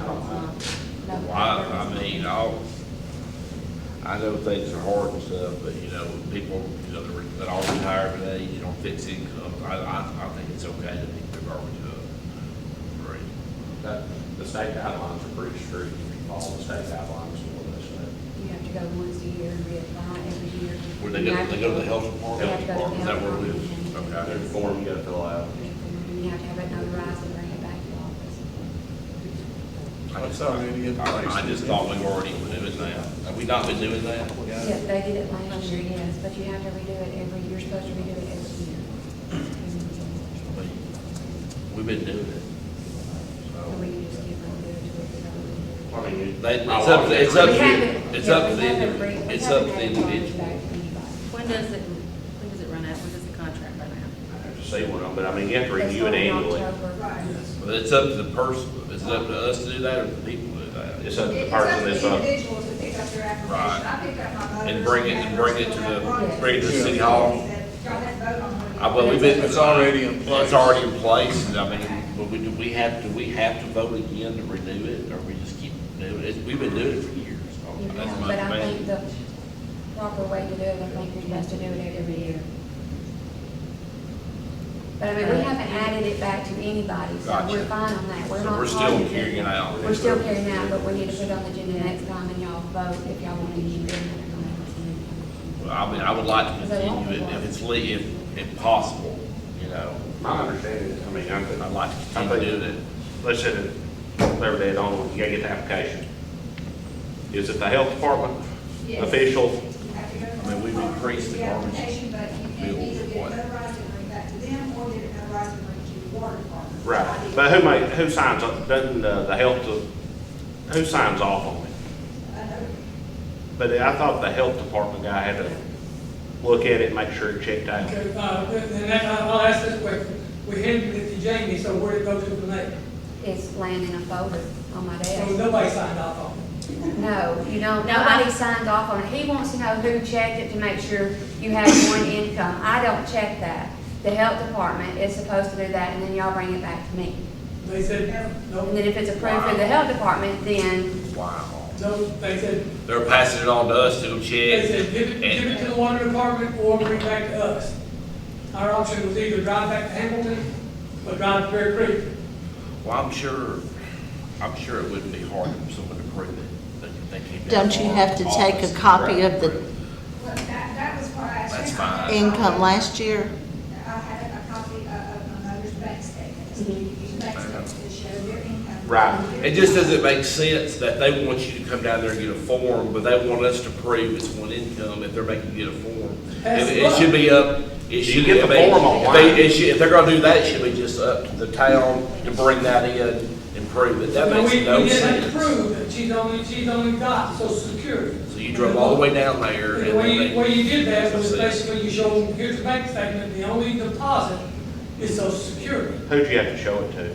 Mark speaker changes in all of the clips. Speaker 1: Well, I, I mean, all, I know things are hard and stuff, but, you know, people, you know, that are- that all retire today, you don't fix income, I, I, I think it's okay to pick their garbage up. Right.
Speaker 2: That, the state guidelines are pretty strict, you can follow the state guidelines and all that stuff.
Speaker 3: You have to go once a year and reapply every year.
Speaker 1: Where they go, they go to the health department?
Speaker 3: They have to go to the
Speaker 1: Is that where it
Speaker 3: health
Speaker 1: is?
Speaker 3: department.
Speaker 1: Okay.
Speaker 2: There's a form you gotta fill out.
Speaker 3: And you have to have it notarized and bring it back to the office.
Speaker 4: That's already in place.
Speaker 1: I I just thought we were already doing that. Have we not been doing that?
Speaker 3: Yeah, they did it last year, yes, but you have to redo it every, you're supposed to redo it every year.
Speaker 1: We- We've been doing it.
Speaker 3: So
Speaker 1: So,
Speaker 3: we can just give them the, to
Speaker 2: I mean, you-
Speaker 1: They, it's
Speaker 2: I
Speaker 1: up,
Speaker 2: walked
Speaker 1: it's
Speaker 2: every
Speaker 1: up,
Speaker 3: it. We
Speaker 1: to-
Speaker 3: haven't-
Speaker 1: it's
Speaker 3: yeah,
Speaker 1: up
Speaker 3: we
Speaker 1: to the,
Speaker 3: haven't
Speaker 1: individ-
Speaker 3: bring- we
Speaker 1: it's
Speaker 3: haven't
Speaker 1: up to the
Speaker 3: had it
Speaker 1: individual.
Speaker 3: back to anybody.
Speaker 5: When does it, when does it run out? When does the contract run out?
Speaker 2: I have to say one of them, but I mean, you have to
Speaker 3: That's
Speaker 2: review it
Speaker 3: not in
Speaker 2: annually.
Speaker 3: October.
Speaker 1: But it's up to the person, it's up to us to do that or the people to do that?
Speaker 2: It's up to the
Speaker 6: It's up
Speaker 2: person
Speaker 6: to
Speaker 2: that's
Speaker 6: the
Speaker 2: up.
Speaker 6: individuals to pick up their
Speaker 1: uh, Right.
Speaker 6: application. I picked up my mother's.
Speaker 1: And bring it- and bring it to the-
Speaker 3: bring
Speaker 1: it to the city hall.
Speaker 6: Y'all had to vote on one.
Speaker 1: I, Uh, well, we've been.
Speaker 4: It's already in place.
Speaker 1: It's already in place, and I mean, but we, do we have, do we have to vote again to renew it, or we just keep doing it? We've been doing it for years. so
Speaker 3: You
Speaker 1: that's
Speaker 3: have,
Speaker 1: my
Speaker 3: But I
Speaker 1: opinion.
Speaker 3: think the proper way to do it, I think you're supposed to do it every year. But I mean, we haven't added it back to anybody, so
Speaker 1: Gotcha.
Speaker 3: we're fine on that. We're
Speaker 1: So
Speaker 3: not.
Speaker 1: we're still
Speaker 3: targeted.
Speaker 1: carrying it out.
Speaker 3: We're still carrying it out, but we need to put it on the agenda next time and y'all vote if y'all want to use it.
Speaker 1: Well, I mean, I would like to continue it if it's le, if, if possible, you know,
Speaker 2: My understanding is, I mean, I'm,
Speaker 1: I'd
Speaker 2: I'm
Speaker 1: like to continue doing it.
Speaker 2: let's set it, whatever day it on, you gotta get the application. Is it the health department
Speaker 6: Yes.
Speaker 2: official?
Speaker 6: You have to go to
Speaker 1: I mean, we've
Speaker 6: the-
Speaker 1: increased the garbage
Speaker 6: application, but you can
Speaker 1: bill
Speaker 6: either get
Speaker 1: what?
Speaker 6: it notarized and bring it back to them, or get it notarized and bring it to the water department.
Speaker 2: Right, but who ma, who signs, up? doesn't uh, the health, de- who signs off on it?
Speaker 6: I know.
Speaker 2: But I thought the health department guy had to look at it, make sure it checked out.
Speaker 7: Okay, uh, and that, I'll ask this question. We handed it to Jamie, so where did it go to from there?
Speaker 3: It's laying in a folder on my
Speaker 7: So
Speaker 3: desk.
Speaker 7: nobody signed off on it.
Speaker 3: No, you don't,
Speaker 5: Nobody-
Speaker 3: nobody signs off on it. He wants to know who checked it to make sure you have one income. I don't check that. The health department is supposed to do that, and then y'all bring it back to me.
Speaker 7: They said, no,
Speaker 3: And then
Speaker 7: no,
Speaker 3: if it's approved through the health department, then,
Speaker 1: Wow.
Speaker 7: no, they said,
Speaker 1: They're passing it on to us to
Speaker 7: they
Speaker 1: check.
Speaker 7: said, give it, give it to the water department or bring it back to us. Our option was either drive back to Hamilton or drive to Bear Creek.
Speaker 1: Well, I'm sure, I'm sure it wouldn't be hard for someone to prove it. They- they came down
Speaker 8: Don't you
Speaker 1: to our
Speaker 8: have to take
Speaker 1: office
Speaker 8: a
Speaker 1: and
Speaker 8: copy of
Speaker 1: prove
Speaker 8: the
Speaker 1: it?
Speaker 6: Well, that, that was what I asked.
Speaker 1: That's
Speaker 6: him.
Speaker 1: fine.
Speaker 8: income last year?
Speaker 6: I had a copy of, of my mother's bank statements, bank statements that show their income.
Speaker 2: Right.
Speaker 6: Their-
Speaker 1: It just doesn't make sense that they want you to come down there and get a form, but they want us to prove it's one income if they're making you get a form. It, it should be up, it should.
Speaker 2: get the
Speaker 1: I mean,
Speaker 2: form
Speaker 1: if
Speaker 2: online.
Speaker 1: they- it should- If they're gonna do that, it should be just up to the town to bring that in and prove it. That
Speaker 7: But
Speaker 1: makes
Speaker 7: we-
Speaker 1: no
Speaker 7: We didn't
Speaker 1: sense.
Speaker 7: prove that she's only, she's only got social security.
Speaker 1: So you drove all the way down there and
Speaker 7: The way,
Speaker 1: then
Speaker 7: you- way
Speaker 1: they.
Speaker 7: you did that was basically you showed, them, here's the bank statement, the only deposit is social security.
Speaker 2: Who'd you have to show it to?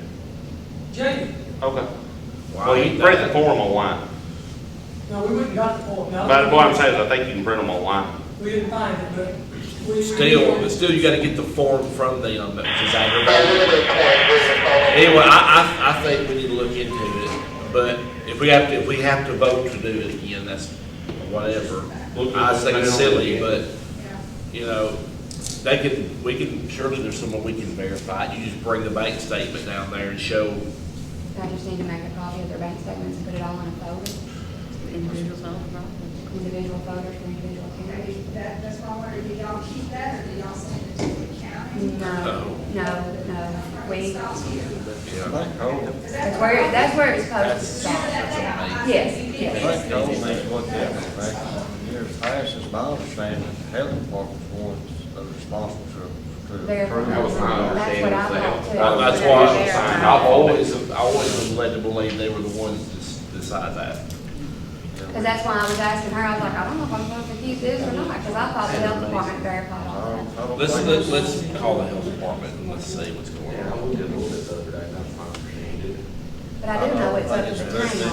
Speaker 7: Jamie,
Speaker 2: Okay.
Speaker 1: Why
Speaker 2: Well, you
Speaker 1: ain't
Speaker 2: can print the
Speaker 1: that-
Speaker 2: form online,
Speaker 7: no, we wouldn't got the form. No,
Speaker 2: but what I'm saying is, I think you can print them online.
Speaker 7: We didn't find it, but we.
Speaker 1: Still, but still you gotta get the form from them, which is aggravating. Anyway, I, I, I think we need to look into it, but if we have to, if we have to vote to do it again, that's whatever. I think it's silly, but, you know, they can, we can, surely there's someone we can verify. You just bring the bank statement down there and show,
Speaker 3: I just need to make a copy of their bank statements and put it all in a folder,
Speaker 5: Individuals own property.
Speaker 3: individual folders for individual
Speaker 6: Okay,
Speaker 3: counties.
Speaker 6: That, that's why I wondered, do y'all keep that, or do y'all send it to the county?
Speaker 3: Mm. No, no, no, we,
Speaker 6: Stops here.
Speaker 1: you know.
Speaker 6: Is that
Speaker 3: that's
Speaker 6: the
Speaker 3: where,
Speaker 6: problem?
Speaker 3: that's where it's supposed to stop.
Speaker 6: That's what I-
Speaker 3: Yes,
Speaker 6: I-
Speaker 3: yes.
Speaker 4: Frank told me what happened back in the years past, it's my understanding, the health department's the ones that are responsible for- for
Speaker 3: They're-
Speaker 4: approving.
Speaker 2: That was my
Speaker 3: That's what I
Speaker 2: understanding,
Speaker 3: thought
Speaker 2: so-
Speaker 3: too.
Speaker 2: Well,
Speaker 1: That's
Speaker 3: Whenever
Speaker 1: why
Speaker 3: they're-
Speaker 2: signed
Speaker 1: I've always, I always was led to believe they were the ones to s- decide that.
Speaker 3: Because that's why I was asking her, I was like, I don't know if I'm going to confuse this or not, because I thought the health department verified
Speaker 4: I
Speaker 3: all
Speaker 4: don't- I don't
Speaker 1: Let's,
Speaker 4: think
Speaker 1: let's,
Speaker 4: it's-
Speaker 1: let's call the health department and let's see what's going on.
Speaker 2: looked at it a little bit the other day, that's my understanding.
Speaker 3: that. But I do know it's up to the
Speaker 4: I don't think it's-
Speaker 3: county.